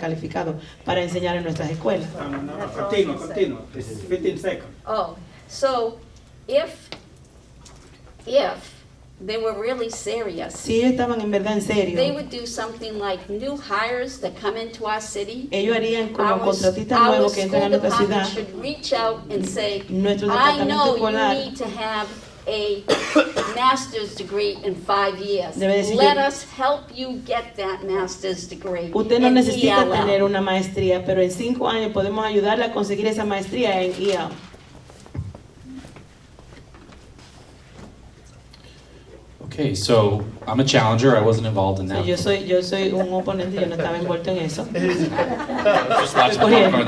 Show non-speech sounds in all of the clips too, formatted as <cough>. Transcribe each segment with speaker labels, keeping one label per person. Speaker 1: calificado para enseñar en nuestras escuelas.
Speaker 2: No, no, no,
Speaker 3: That's all
Speaker 2: continue,
Speaker 3: I can say.
Speaker 2: continue. It's 15 seconds.
Speaker 3: Oh, so if, if they were really serious,
Speaker 1: Si ellos estaban en verdad en
Speaker 3: they
Speaker 1: serio,
Speaker 3: would do something like new hires that come into our city.
Speaker 1: ellos harían Eh, como
Speaker 3: Our-
Speaker 1: contratistas nuevos que entran a
Speaker 3: Our
Speaker 1: nuestra
Speaker 3: school
Speaker 1: ciudad.
Speaker 3: department should reach out and say,
Speaker 1: Nuestro
Speaker 3: I
Speaker 1: departamento
Speaker 3: know
Speaker 1: escolar
Speaker 3: you need to have a master's degree in five years.
Speaker 1: Debe decir,
Speaker 3: Let
Speaker 1: yo-
Speaker 3: us help you get that master's degree E
Speaker 1: Usted no
Speaker 3: in
Speaker 1: necesita
Speaker 3: ELL."
Speaker 1: tener una maestría, pero en cinco años podemos ayudarle a conseguir esa maestría en E IAO.
Speaker 4: Okay, so I'm a challenger. I wasn't involved in that.
Speaker 1: yo soy, yo soy un oponente, yo no estaba envuelto en eso.
Speaker 4: Just lots of popcorn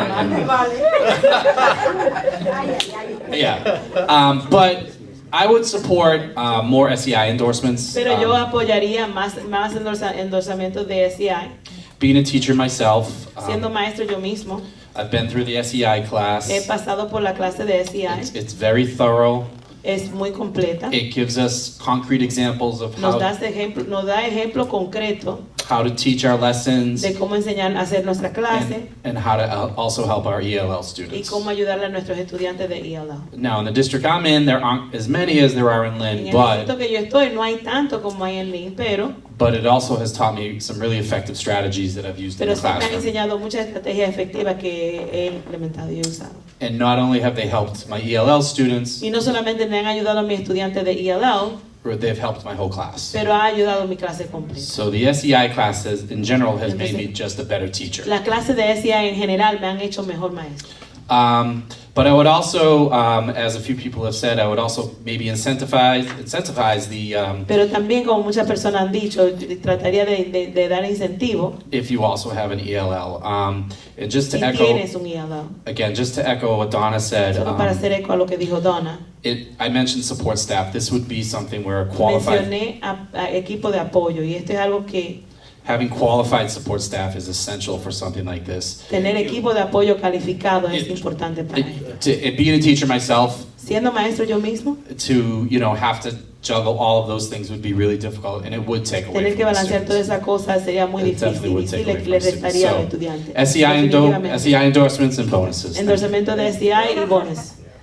Speaker 4: then. <laughs> Yeah, um, but I would support uh, more SEI endorsements.
Speaker 1: Pero yo
Speaker 4: Um,
Speaker 1: apoyaría más, más endorsa- endorsamientos de SEI,
Speaker 4: being a teacher myself, um,
Speaker 1: siendo maestro yo mismo.
Speaker 4: I've been through the SEI class.
Speaker 1: He pasado por la clase de
Speaker 4: It's,
Speaker 1: SEI,
Speaker 4: it's very thorough.
Speaker 1: es muy completa.
Speaker 4: It gives us concrete examples of
Speaker 1: Nos da,
Speaker 4: how,
Speaker 1: este ejemplo, nos da ejemplo concreto
Speaker 4: how to teach our lessons
Speaker 1: de cómo enseñar a hacer nuestra clase
Speaker 4: and, and how to al- also help our ELL
Speaker 1: y
Speaker 4: students.
Speaker 1: cómo ayudarle a nuestros estudiantes de E ELL.
Speaker 4: Now, in the district I'm in, there aren't as many as there are in
Speaker 1: En
Speaker 4: Lynn,
Speaker 1: el
Speaker 4: but
Speaker 1: momento que yo estoy no hay tanto como hay en Lynn, pero,
Speaker 4: But it also has taught me some really effective strategies that I've used in
Speaker 1: pero
Speaker 4: the
Speaker 1: sí me han
Speaker 4: classroom.
Speaker 1: enseñado muchas estrategias efectivas que he implementado y he usado.
Speaker 4: And not only have they helped my ELL students,
Speaker 1: Y no solamente me han ayudado a mis estudiantes de ELL,
Speaker 4: but they've helped my whole class.
Speaker 1: pero ha ayudado a mi clase completa.
Speaker 4: So the SEI class has, in general has made me
Speaker 1: Entonces-
Speaker 4: just a better teacher.
Speaker 1: Las clases de SEI en general me han hecho mejor maestro.
Speaker 4: Um, but I would also, um, as a few people have said, I would also maybe incentivize incentivize the um,
Speaker 1: Pero también, como muchas personas han dicho, trataría de, de- de dar incentivo
Speaker 4: if you also have an ELL. Um, and just to
Speaker 1: si
Speaker 4: echo
Speaker 1: tienes un ELL.
Speaker 4: again, just to echo what Donna said.
Speaker 1: Solo para
Speaker 4: Um,
Speaker 1: hacer eco a lo que dijo Donna,
Speaker 4: it, I mentioned support staff. This would be something where a qualified
Speaker 1: mencioné a, a equipo de apoyo y esto es algo que
Speaker 4: Having qualified support staff is essential for something like this.
Speaker 1: tener equipo de apoyo calificado es
Speaker 4: It-
Speaker 1: importante para ellos.
Speaker 4: It, to, it, being a teacher myself,
Speaker 1: Siendo maestro yo mismo,
Speaker 4: to you know have to juggle all of those things would be really difficult, and it would take away
Speaker 1: tener
Speaker 4: from
Speaker 1: que
Speaker 4: the
Speaker 1: balancear todas
Speaker 4: students.
Speaker 1: esas cosas sería muy
Speaker 4: It definitely
Speaker 1: difícil
Speaker 4: would
Speaker 1: y sí
Speaker 4: take
Speaker 1: le,
Speaker 4: away from
Speaker 1: le
Speaker 4: the students.
Speaker 1: restaría al
Speaker 4: So,
Speaker 1: estudiante.
Speaker 4: SEI, endo-
Speaker 1: Definitivamente.
Speaker 4: SEI E endorsements and bonuses.
Speaker 1: Endorsamiento de SEI y
Speaker 5: Yeah,
Speaker 1: bonos.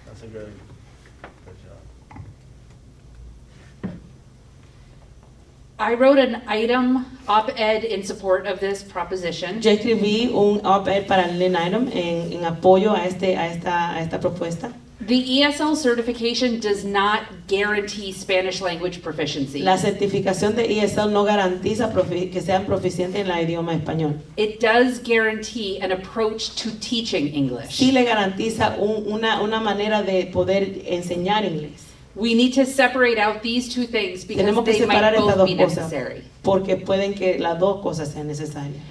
Speaker 5: that's a very good job.
Speaker 6: I wrote an item op-ed in support of this proposition.
Speaker 1: Yo escribí un op-ed para el Lynn Item en, en apoyo a, este, a, esta, a esta propuesta.
Speaker 6: The ESL certification does not guarantee Spanish language proficiency.
Speaker 1: La certificación de ESL no garantiza profi- que sean proficientes en el idioma español.
Speaker 6: It does guarantee an approach to teaching English.
Speaker 1: Sí le garantiza un- una, una manera de poder enseñar inglés.
Speaker 6: We need to separate out these two things
Speaker 1: Tenemos
Speaker 6: because
Speaker 1: que
Speaker 6: they might
Speaker 1: separar estas
Speaker 6: both
Speaker 1: dos
Speaker 6: be
Speaker 1: cosas
Speaker 6: necessary.
Speaker 1: porque pueden que las dos cosas sean necesarias.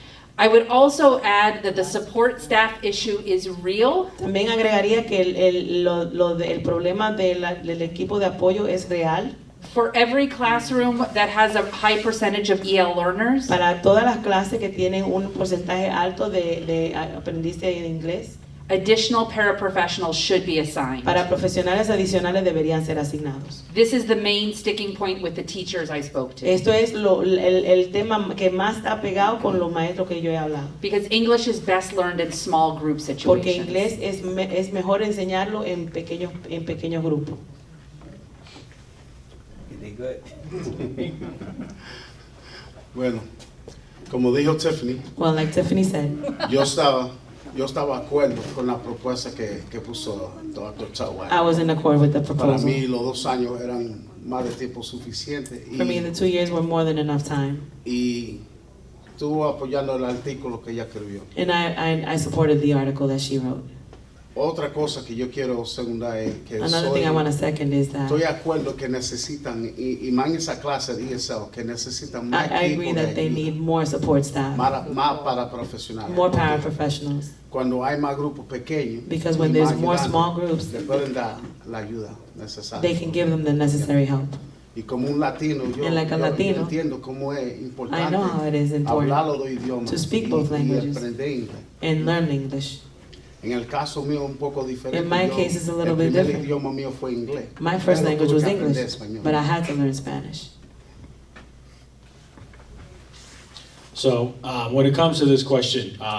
Speaker 6: I would also add that the support staff issue is real.
Speaker 1: También agregaría que el, el- lo- lo de- el problema de la- del equipo de apoyo es real.
Speaker 6: For every classroom that has a high percentage of EL learners,
Speaker 1: Para todas las clases que tienen un porcentaje alto de, de aprendiz de inglés,
Speaker 6: additional paraprofessionals should be assigned.
Speaker 1: para profesionales adicionales deberían ser asignados.
Speaker 6: This is the main sticking point with the teachers I spoke to.
Speaker 1: Esto es lo- el, el tema que más está pegado con los maestros que yo he hablado.
Speaker 6: Because English is best learned in small group
Speaker 1: Porque
Speaker 6: situations.
Speaker 1: inglés es, me- es mejor enseñarlo en pequeños, en pequeños grupos.
Speaker 2: Is it good?
Speaker 7: Bueno, como dijo Tiffany,
Speaker 1: Well, like Tiffany said,
Speaker 7: yo estaba, yo estaba de acuerdo con la propuesta que, que puso Dr. Tutwiler.
Speaker 1: I was in accord with the
Speaker 7: Para mí
Speaker 1: proposal.
Speaker 7: los dos años eran más de tiempo suficiente
Speaker 1: For me, the
Speaker 7: y,
Speaker 1: two years were more than enough time,
Speaker 7: y estuvo apoyando el artículo que ella escribió.
Speaker 1: and I, I, I supported the article that she wrote.
Speaker 7: Otra cosa que yo quiero secundar es que
Speaker 1: Another
Speaker 7: soy,
Speaker 1: thing I want to second is that
Speaker 7: estoy de acuerdo que necesitan, y, y más en esa clase de ESL, que necesitan
Speaker 1: I,
Speaker 7: más
Speaker 1: I agree
Speaker 7: equipo de
Speaker 1: that they
Speaker 7: ayuda,
Speaker 1: need more support staff,
Speaker 7: más, más para profesionales.
Speaker 1: more
Speaker 7: porque
Speaker 1: paraprofessionals,
Speaker 7: Cuando hay más grupos pequeños,
Speaker 1: because when
Speaker 7: y
Speaker 1: there's
Speaker 7: más
Speaker 1: more
Speaker 7: ayudantes,
Speaker 1: small groups,
Speaker 7: le pueden dar la ayuda necesaria.
Speaker 1: they can give them the necessary help.
Speaker 7: y como un latino, yo,
Speaker 1: And like a
Speaker 7: yo- yo
Speaker 1: latino,
Speaker 7: entiendo cómo es importante
Speaker 1: know how it is important
Speaker 7: hablar los dos idiomas
Speaker 1: to speak
Speaker 7: y,
Speaker 1: both
Speaker 7: y
Speaker 1: languages.
Speaker 7: aprender inglés.
Speaker 1: And learn English.
Speaker 7: En el caso mío un poco diferente.
Speaker 1: In my
Speaker 7: yo-
Speaker 1: case, it's a little
Speaker 7: el
Speaker 1: bit
Speaker 7: primer
Speaker 1: different.
Speaker 7: idioma mío fue inglés.
Speaker 1: My first
Speaker 7: Pero
Speaker 1: language
Speaker 7: tuve
Speaker 1: was
Speaker 7: que aprender
Speaker 1: English,
Speaker 7: español.
Speaker 1: but I had to learn Spanish.
Speaker 8: So um, when it comes to this question, um,